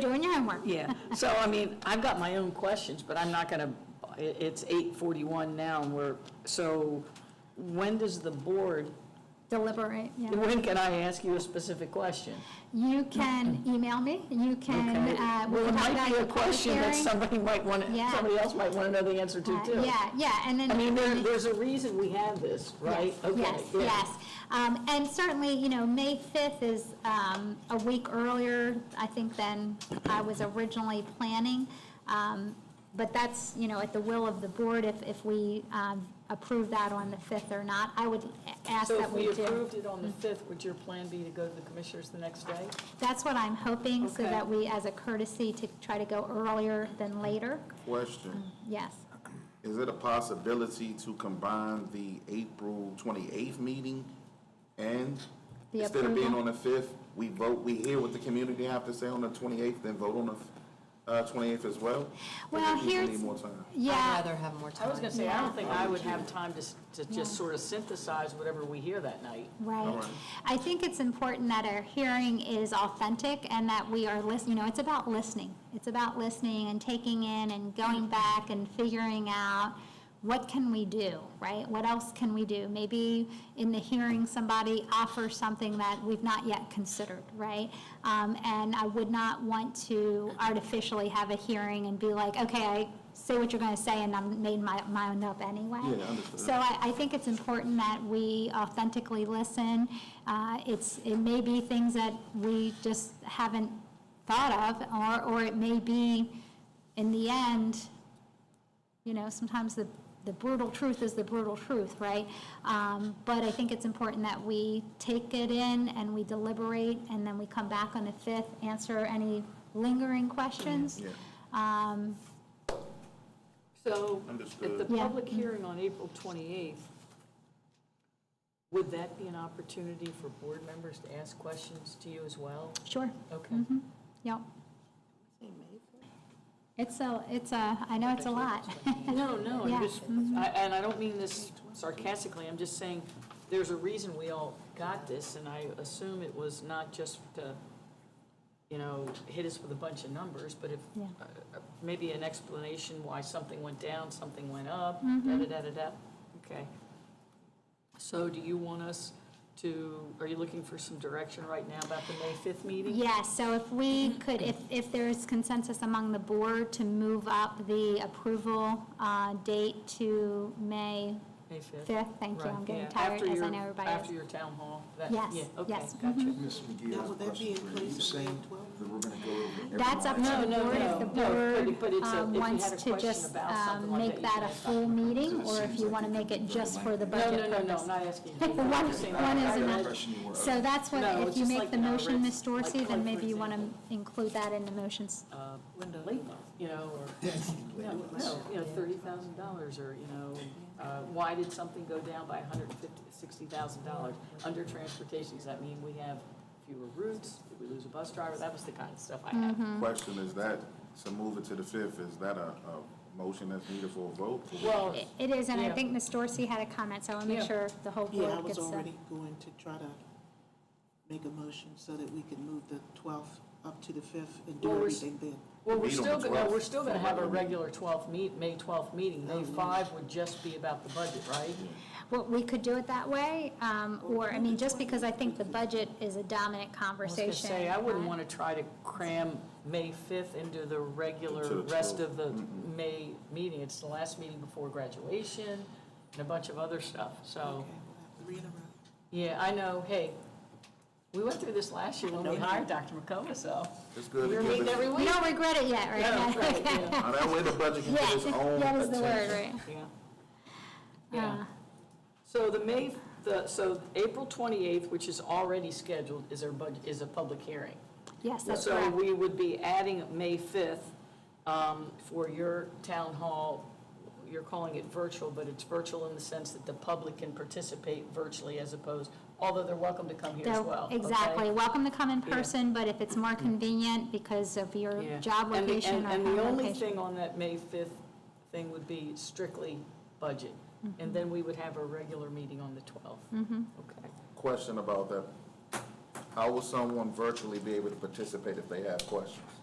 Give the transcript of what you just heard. Doing your homework. Yeah, so I mean, I've got my own questions, but I'm not going to, it's 8:41 now, and we're, so when does the board, Deliberate, yeah. when can I ask you a specific question? You can email me, you Okay. can, uh, we Well, it can talk might about be the a public question that hearing. somebody might want, Yeah. somebody else might want to know the answer to, Uh, too. Yeah, yeah, and then. I mean, there, there's a reason we have this, right? Yes, Okay. Yes, yeah. yes. Um, And certainly, you know, May 5th is um, a week earlier, I think, than I was originally planning. Um, But that's, you know, at the will of the board if, if we um, approve that on the 5th or not. I would ask So that if we we do. Mm-hmm. approved it on the 5th, would your plan be to go to the commissioners the next day? That's what I'm hoping, so Okay. that we, as a courtesy, to try to go earlier than later. Question, Yes. is it a possibility to combine the April 28th meeting and, The instead of being approval? on the 5th, we vote, we hear what the community have to say on the 28th, then vote on the uh, 28th as well? Or Well, do you here's- Need more time. I'd Yeah, rather have more time. I was going to say, I don't think Yeah. I would have time to, s- to Yeah. just sort of synthesize whatever we hear that night. All right. right. I think it's important that our hearing is authentic and that we are listening, you know, it's about listening. It's about listening and taking in and going back and figuring out what can we do, right? What else can we do? Maybe in the hearing, somebody offers something that we've not yet considered, right? Um, And I would not want to artificially have a hearing and be like, okay, I say what you're going to say, and I'm made my mind up anyway. Yeah, understood. So I, I think it's important that we authentically listen. Uh, It's, it may be things that we just haven't thought of, or, or it may be, in the end, you know, sometimes the, the brutal truth is the brutal truth, right? Um, But I think it's important that we take it in and we deliberate, and then we come back on the 5th, answer any lingering questions. Yeah. So at the Understood. Yeah. public hearing on April 28th, would that be an opportunity for board members to ask questions to you as well? Sure. Okay. Yep. It's a, it's a, I know it's a lot. No, no, I'm Yeah. just, I- and I don't mean this sarcastically, I'm just saying, there's a reason we all got this, and I assume it was not just to, you know, hit us with a bunch of numbers, but if, Yeah. uh, uh, maybe an explanation why something went down, something went up, Mm-hmm. da-da-da-da-da, okay. So do you want us to, are you looking for some direction right now about the May 5th meeting? Yes, so if we could, if, if there is consensus among the board to move up the approval uh, date to May, May 5th? Fifth, thank you. I'm Right, getting yeah. tired, After as I your- know everybody is. After your town hall? that- Yes, yeah, Okay, yes, Mm-hmm. gotcha. Ms. McGee, I Now, have a would that be question for you. Are you inclusive of saying 12? that we're going to go over every that's up to No, the no, board if no, the no, but- but board it's a- if um, you wants had a to question just about um, something like make that, that a you can full meeting, it or if seems you like want to it make could it be just very for the lengthy. budget No, no, no, no, purpose. not asking. Pick one, one is impression you enough. were So under. that's what, No, if it's you just make like the an motion, outright- Ms. Dorsey, like, then for maybe you want example. to include that in the motions. uh, Linda Lee, you know, or, no, no, you know, thirty thousand dollars, or, you know, uh, why did something go down by a hundred and fifty, sixty thousand dollars? Under transportation, does that mean we have fewer routes, did we lose a bus driver, that was the kind of stuff I had. Question, is that, to move it to the 5th, is that a, a motion that's needed for a vote? Well, It it is, and I Yeah. think Ms. Dorsey had a comment, so I want to make Yeah. sure the whole Yeah, I board was gets already the. going to try to make a motion so that we could move the 12th up to the 5th and do Well, we're- everything then. well, we're Meet on still, the go- no, we're 12th. still gonna have a regular twelfth meet, May twelfth meeting, Oh, May five would just be about the budget, right? Well, we could do it that way, um, or, I mean, just because I think the budget is a dominant I was conversation. Uh, gonna say, I wouldn't want to try to cram May 5th into the To regular the rest of the May meeting. It's the last meeting before graduation and a bunch of other stuff, so, Okay, we'll have three in a row. yeah, I know, hey, we went through this last year when we hired Dr. McComa, so. It's good to We're give meeting it- every You week. don't regret it yet, right? Uh, Yeah, right, yeah, Now, that way the budget can Yeah, get its own that is the word, attention. right? yeah. Yeah. So the May, the, so April 28th, which is already scheduled, is our budget, is a public hearing. Yes, that's So correct. we would be adding May 5th um, for your town hall, you're calling it virtual, but it's virtual in the sense that the public can participate virtually as opposed, although they're welcome to come here as They're- well. okay? Exactly, welcome to come in Yeah. person, but if it's more convenient because of Yeah. your job And the- location and- or And home the only location. thing on that May 5th thing would be strictly budget. Mm-hmm. And then we would have a regular meeting on the 12th. Okay. Question about that, how will someone virtually be able to participate if they have questions?